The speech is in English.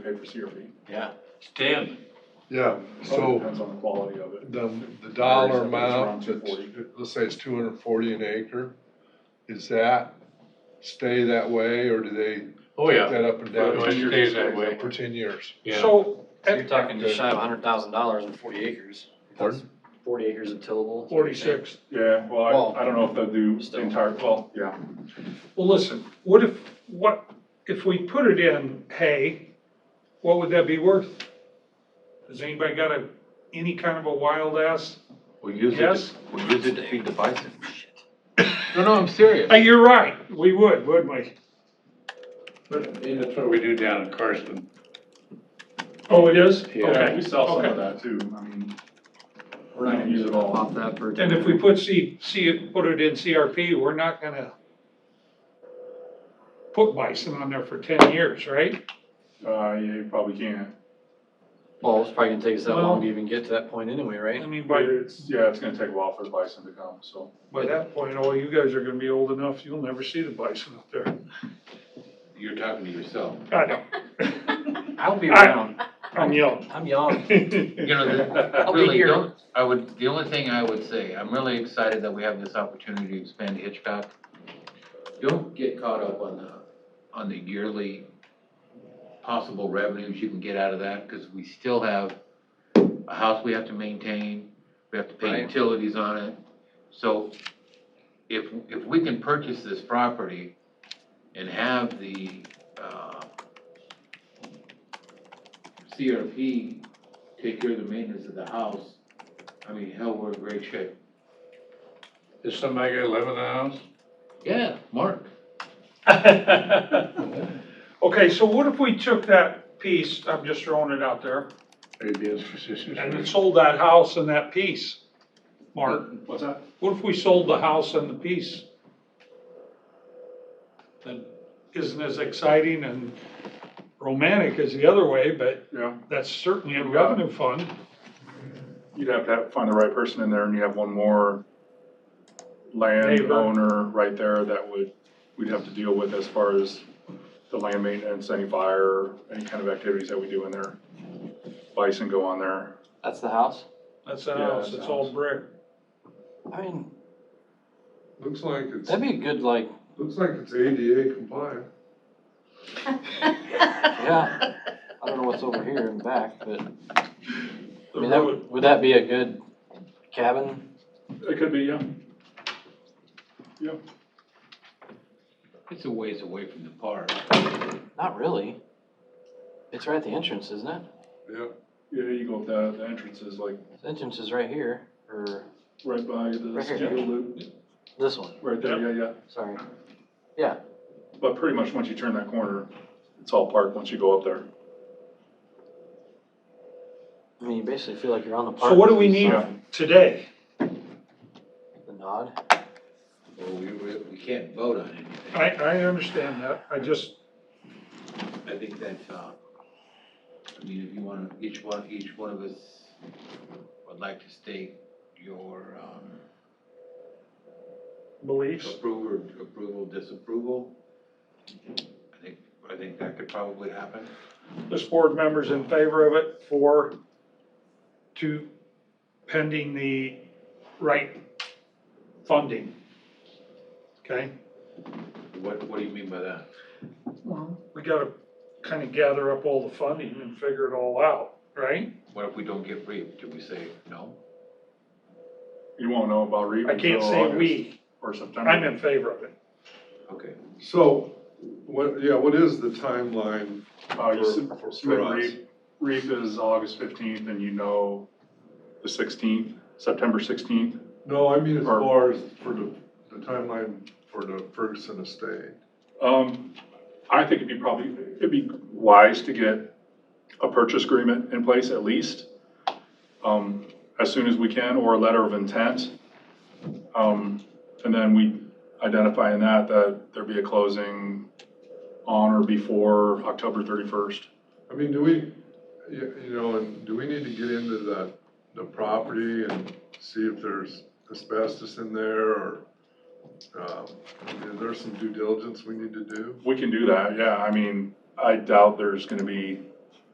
for CRP. Yeah. Stem, Yeah, So it so depends on the quality of it. the, the dollar Varies, I amount, think it's around that's- let's say it's two hundred and forty an acre, is that stay that way, or do they oh yeah, that up and it down stays that way, for ten years? yeah. So, So you're talking just shy of a hundred thousand dollars and forty acres. Pardon? Forty acres of tillable. forty-six, Yeah, well, Well, I, I don't know if they'll do the still. entire, well, yeah. well, listen, what if, what, if we put it in hay, what would that be worth? Has anybody got a, any kind of a wild ass? We use it, Yes. to- we use it to feed the bison. No, no, I'm serious. Uh, you're right, we would, wouldn't we? That's what we do down in Carson. Oh, it is? Yeah, Okay. we sell some Okay. of that too, I mean, We're not gonna use it all off that for. And if we put C, C, put it in CRP, we're not gonna put bison on there for ten years, right? uh, yeah, you probably can't. Well, it's probably gonna take us that Well- Um, long to even get to that point anyway, I right? mean, But by, it's, yeah, it's gonna take a while for the bison to come, so. by that point, all you guys are gonna be old enough, you'll never see the bison up there. You're talking to yourself. I know, I'll be I- around. I'm young. I'm young. You know, the, I'll be really, here. don't- I would, the only thing I would say, I'm really excited that we have this opportunity to expand Hitchcock. Don't get caught up on the, on the yearly possible revenues you can get out of that, because we still have a house we have to maintain, we have to pay Right. utilities on it. So if, if we can purchase this property and have the, uh, CRP take care of the maintenance of the house, I mean, hell, we're in great shape. Is somebody gonna live in the house? Yeah, Mark. Okay, so what if we took that piece, I'm just throwing it out there, and sold that house and that piece? Mark, What's that? what if we sold the house and the piece? That isn't as exciting and romantic as the other way, but Yeah, that's certainly a revenue fund. you'd have to have, find the right person in there and you have one more Neighbor. landowner right there that would, we'd have to deal with as far as the land maintenance, any fire, any kind of activities that we do in there. Bison go on there. That's the house? That's the Yeah, house, that's it's the all house. brick. I mean, Looks like it's, that'd be a good, like, looks like it's ADA compliant. yeah. I don't know what's over here in back, but, I The mean, that, road, would would that be a good cabin? It could be, yeah. It's a ways away from the park. Not really. It's right at the entrance, isn't it? Yeah, you go up the, the entrance is like The entrance is right here, or right by the Right here. steel loop, this one, right there, yeah, yeah. sorry. But pretty much once you turn that corner, it's all park once you go up there. I mean, you basically feel like you're on the park. so what do we need Yeah. today? The nod. Well, we, we, we can't vote on anything. I, I understand that, I just, I think that, uh, I mean, if you wanna, each one, each one of us would like to state your, um, beliefs. approval, approval, disapproval. I think, I think that could probably happen. This board member's in favor of it for, to pending the right funding. Okay, What, what do you mean by that? we gotta kind of gather up all the funding and figure it all out, right? What if we don't get briefed? Do we say no? You won't know about REAP I can't until say August we, Or September. I'm in favor of it. Okay. So, what, yeah, what is the timeline? Uh, you for- sub- for- submit for us? REAP, REAP is August fifteenth and you know the sixteenth, September sixteenth. No, I mean as Or- far as for the, the timeline for the Ferguson estate. Um, I think it'd be probably, it'd be wise to get a purchase agreement in place at least, um, as soon as we can, or a letter of intent. Um, and then we identify in that that there be a closing on or before October thirty-first. I mean, do we, you, you know, and do we need to get into the, the property and see if there's asbestos in there or, um, is there some due diligence we need to do? We can do that, yeah, I mean, I doubt there's gonna be